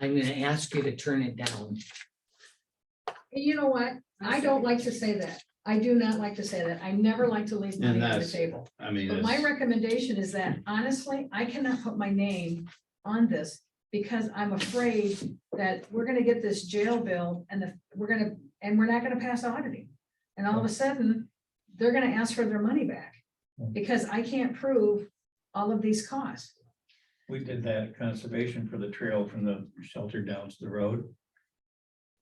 I'm gonna ask you to turn it down. You know what? I don't like to say that. I do not like to say that. I never like to leave And money on the that's- table. I mean, But my it's- recommendation is that honestly, I cannot put my name on this because I'm afraid that we're gonna get this jail bill and the, we're gonna, and we're not gonna pass auditing. And all of a sudden, they're gonna ask for their money back because I can't prove all of these costs. We did that at conservation for the trail from the shelter down to the road.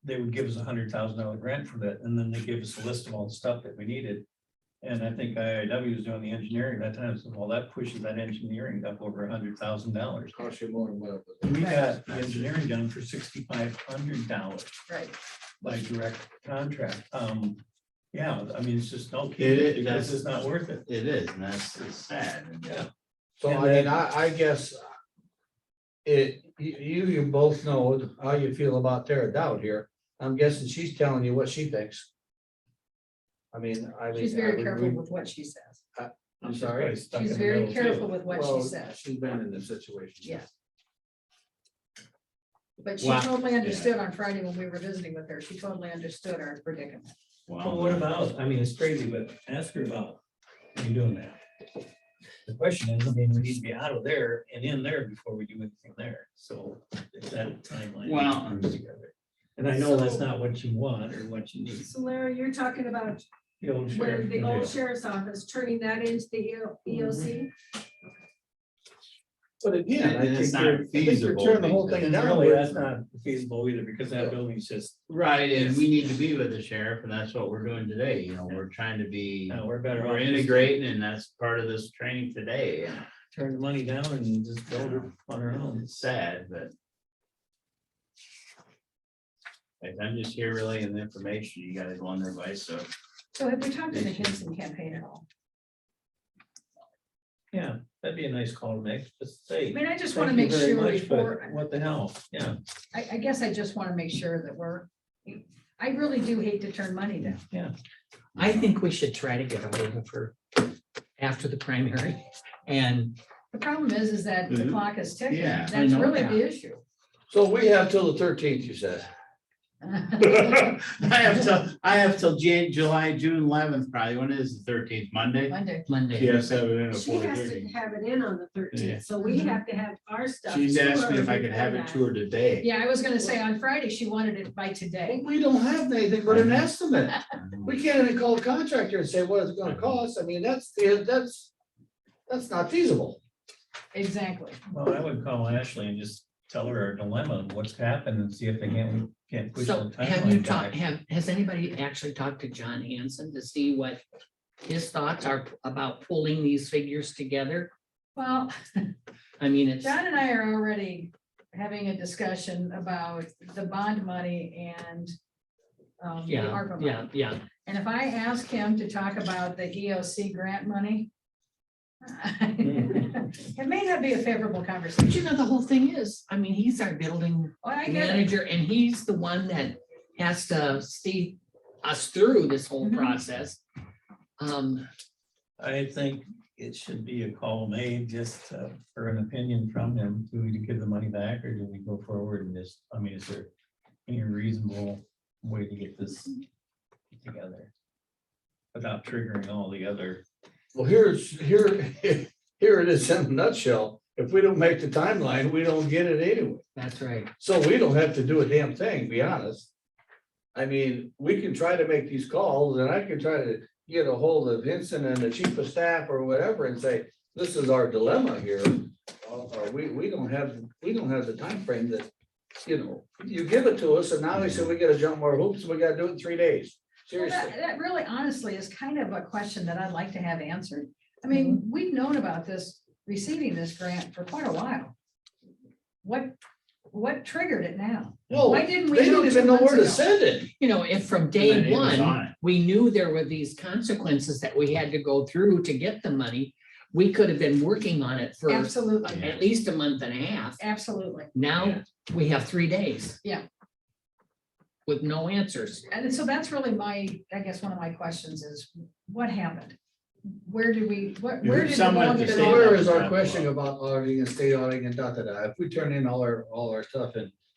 They would give us a hundred thousand dollar grant for that, and then they gave us a list of all the stuff that we needed. And I think IIW was doing the engineering at that time, so well, that pushes that engineering up over a hundred thousand dollars. Cost you more than what it was. We got the engineering done for sixty-five hundred dollars Right. by direct contract. Um, yeah, I mean, it's just no It is, kidding, because it's not worth it. it is, and that's, it's sad. and- Yeah. So I mean, I, I guess. It, you, you, you both know how you feel about Tara Dowd here. I'm guessing she's telling you what she thinks. I mean, I mean. She's I very would- careful with what she says. I'm She's sorry? probably stuck in She's the very middle, too. careful with what she Well, says. She's been in this situation. Yes. But she Wow. totally understood on Friday when we were visiting with her. She totally understood our predicament. Well, what about, I mean, it's crazy, but ask her about you doing that. The question is, I mean, we need to be out of there and in there before we do anything there, so it's that timeline. Well- comes together. And I know that's not what you want or what you need. So Larry, you're talking about The old where sheriff Mm-hmm. the can old do. sheriff's office, turning that into the E EO- EOC? But Yeah, again, I and it's think you're, I not think you're feasible tearing the whole these thing And down. really, that's not feasible either, because that building's just, Right, and we need to be with the sheriff, and that's what we're doing today, you know, we're trying to be, no, we're Oh, better we're off. just integrating, and that's part of this training today. and Turn the money down and just build it on our own. It's sad, but. Like, I'm just here relaying the information, you guys want their advice, so. So have we talked to the Henson campaign at all? Yeah, that'd be a nice call to make, just I say. mean, I just want to "Thank make you very sure much, but before, What the hell, yeah. I, I guess I just want to make sure that we're, I really do hate to turn money down. I think we should try to get a hold of her after the primary and The problem is, is that the Mm-hmm. Mhm. clock is ticking. Yeah, I That's know really that. the issue. So we have till the thirteenth, you said. I have till, I have till Jan, July, June eleventh, probably, when is the thirteenth, Monday? Monday. Monday. Yes, have it in at She has to 4:30. have it in on the Yeah. thirteenth, so we have to have our stuff. She's asked me if I toured could have it before to her today. Yeah, I was going to say on Friday, she wanted it by today. We don't have anything but an estimate. We can't even call a contractor and say, what is it gonna cost? I mean, that's, that's, that's not feasible. Exactly. Well, I would call Ashley and just tell her our dilemma, of what's happened and see if they can't, can't push the So have you timeline talked, back. have, has anybody actually talked to John Hanson to see what his thoughts are about pulling these figures together? Well, I mean, it's, John and I are already having a discussion about the bond money and um, the yeah, ARPA money. yeah, yeah. And if I ask him to talk about the EOC grant money, it may not be a favorable conversation. But you know, the whole thing is, I mean, he's our building Oh, I get it. manager and he's the one that has to see us through this whole Mhm. process. Um, I think it should be a call made just uh, for an opinion from him. Do we give the money back or do we go forward and just, I mean, is there any reasonable way to get this together? Without triggering all the other, Well, here's, here, here it is in a nutshell. If we don't make the timeline, we don't get it anyway. that's right. So we don't have to do a damn thing, be honest. I mean, we can try to make these calls and I can try to get a hold of Vincent and the chief of staff or whatever and say, this is our dilemma here. Uh, uh, we, we don't have, we don't have the timeframe that, you know, you give it to us and now they say we gotta jump more hoops, we gotta do it in three days. Well, Seriously. That that really honestly is kind of a question that I'd like to have answered. I mean, we've known about this, receiving this grant for quite a while. What, what triggered it now? Whoa, Why didn't we? they don't two even know months where to ago? send it. You know, if from And day it was one, on it. we knew there were these consequences that we had to go through to get the money, we could have been working on it for Absolutely, Yeah. at least a month and a half. absolutely. Now, we have three days. Yeah. With no answers. And so that's really my, I guess, one of my questions is what happened? Where did we, what, You where heard did? the someone law at the get state off? Where level. is our question about auditing and state auditing and da, da, da? If we turn in all our, all our stuff and